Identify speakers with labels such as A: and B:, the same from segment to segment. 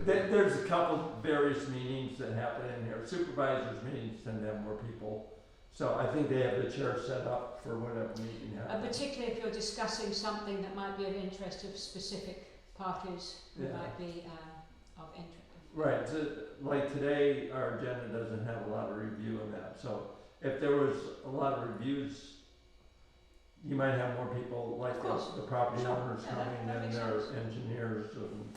A: There, there's a couple various meetings that happen in here, supervisors meetings and then where people, so I think they have the chair set up for whatever meeting
B: Uh,
A: happens.
B: particularly if you're discussing something that might be of interest of specific parties who
A: Yeah.
B: might be uh, of interest.
A: Right, so, like today, our agenda doesn't have a lot of review in that, so if there was a lot of reviews, you might have more people like
B: Of
A: the,
B: course.
A: the property
B: Sure.
A: owners
B: Yeah, that-
A: coming
B: that
A: and
B: makes
A: their
B: sense.
A: engineers and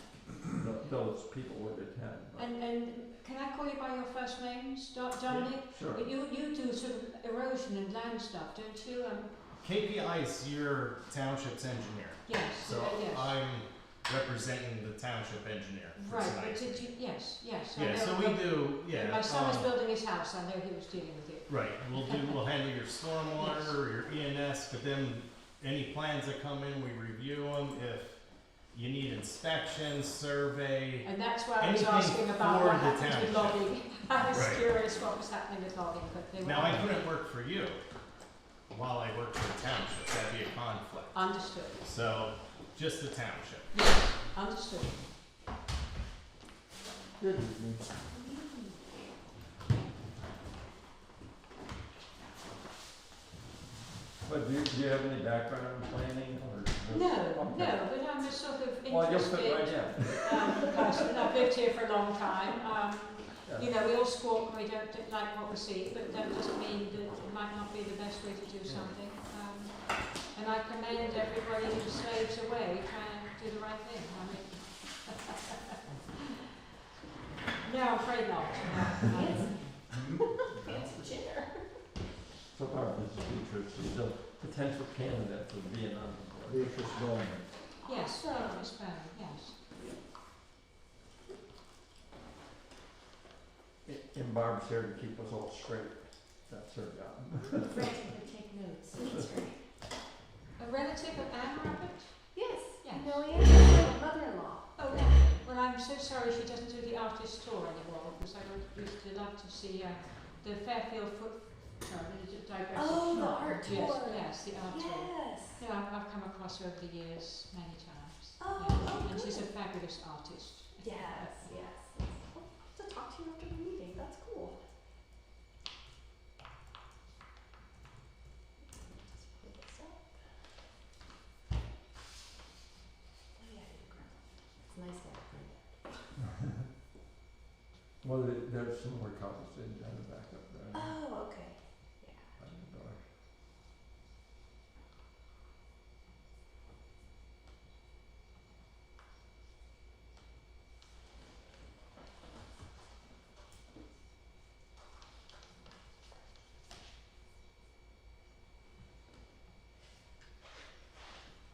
A: th- those people would attend, but,
B: And, and can I call you by your first names, Do- Dominic?
A: sure.
B: You, you do sort of erosion and land stuff, don't you? Um,
C: KPI is your township's engineer,
B: yes,
C: so
B: uh, yes.
C: I'm representing the township engineer for
B: right, but
C: tonight.
B: did you, yes, yes. I
C: yeah,
B: know,
C: so we
B: when-
C: do. Yeah.
B: when My son was
C: um,
B: building his house, I know he was dealing with it.
C: Right, and we'll do, we'll handle your stormwater or your ENS, but then any plans that come in, we review them. If you need inspections, survey,
B: And that's why I was
C: Anything
B: asking about
C: for
B: what
C: the
B: happened
C: township.
B: with logging. I was
C: Right.
B: curious what was happening with logging, but they were.
C: now I couldn't work for you while I work for the township, that'd be a conflict.
B: Understood,
C: So, just the township.
B: yes, understood.
A: Good evening. But do you, do you have any background in planning or? just-
B: No,
A: Okay.
B: no, but I'm a sort of
A: Well, you'll fit right
B: interested
A: in.
B: um, person. I've lived here for a long time. Um,
A: Yeah.
B: you know, we all squawk and we don't don't like what we see, but that doesn't mean that it might not be the best way to do
A: Yeah.
B: something. Um, and I commend everybody who slaves away trying to do the right thing. I mean, no, I'm afraid not. Um,
A: So far, Mrs. Beatrice is a potential candidate for being on the board.
D: Beatrice Bowman.
B: yes, Miss Bowden, yes.
A: A- And Barb's here to keep us all straight. That's her job.
E: take notes.
B: A relative of Anne Rabbit?
E: Yes,
B: Yes.
E: Millian, my mother-in-law.
B: Oh, lovely. Well, I'm so sorry she doesn't do the artist tour anymore because I would used to love to see uh, the Fairfield foot. No, I'm going to digress.
E: Oh, the art
B: yes,
E: tour.
B: Yes, the art tour.
E: Yes.
B: Yeah, I've, I've come across her over the years many times.
E: Oh,
B: yeah.
E: oh,
B: and she's a
E: good.
B: fabulous artist.
E: Yes, yes. I'll have to talk to you after the meeting, that's cool. Just pull this up. Oh, yeah, I didn't grab it. It's nice that I found it.
A: Well, there- there's some more copies in the back up there.
E: Oh, okay, yeah.
A: by the door.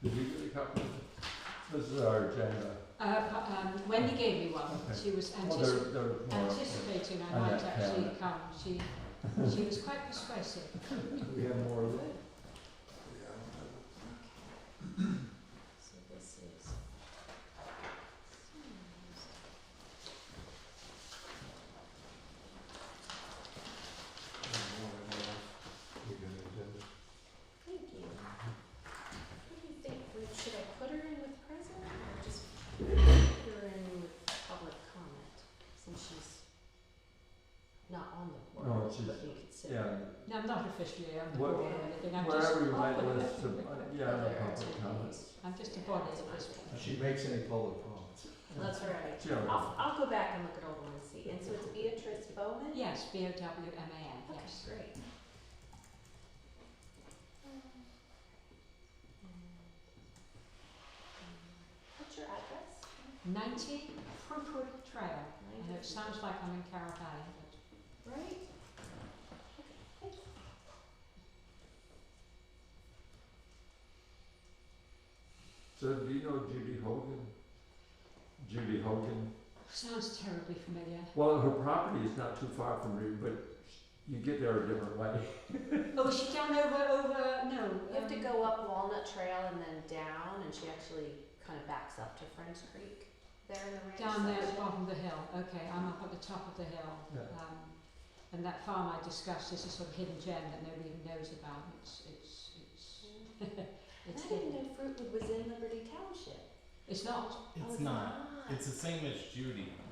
A: Did you get a copy? This is our agenda.
B: Uh, but, um, Wendy gave me one.
A: Okay.
B: She was
A: Well, there, there's
B: antici-
A: more. up there.
B: anticipating I
A: Oh,
B: might
A: yeah, yeah,
B: actually
A: yeah.
B: come. She, she was quite persuasive.
D: We have more of that.
E: So this is. Thank you. What do you think, Would- should I put her in with present or just put her in with public comment? Since she's not on the
A: No,
E: board,
A: Oh, she's-
E: but you could sit.
A: Yeah,
B: No, I'm not officially on the
A: What-
B: board or anything. I'm just,
A: wherever you might list, some- yeah, no public comments.
B: I'm just a body at this point.
D: She makes any public comments.
E: That's right.
A: Sure.
E: I'll, I'll go back and look at old ones and see. And so it's Beatrice Bowman?
B: Yes, B O W M A N,
E: Okay,
B: yes.
E: great. What's your address?
B: Ninety Fruitwood Trail. I know it sounds like I'm in Carroll Valley, but
E: Right? Okay, thank you.
A: So do you know Judy Hogan? Judy Hogan?
B: sounds terribly familiar.
A: Well, her property is not too far from you, but you get there a different way.
B: Oh, is she down over, over, no.
E: You have to
B: um,
E: go up Walnut Trail and then down, and she actually kind of backs up to French Creek there in the ranch.
B: Down there at the
E: section.
B: bottom of the hill, okay, I'm up at the top of the hill.
A: Yeah.
B: Um, and that farm I discussed is a sort of hidden gem that nobody even knows about. It's, it's, it's,
E: And
B: it's
E: I
B: hidden.
E: didn't know Fruitwood was in Liberty Township.
B: It's not.
E: Oh,
C: It's not. It's the same as Judy.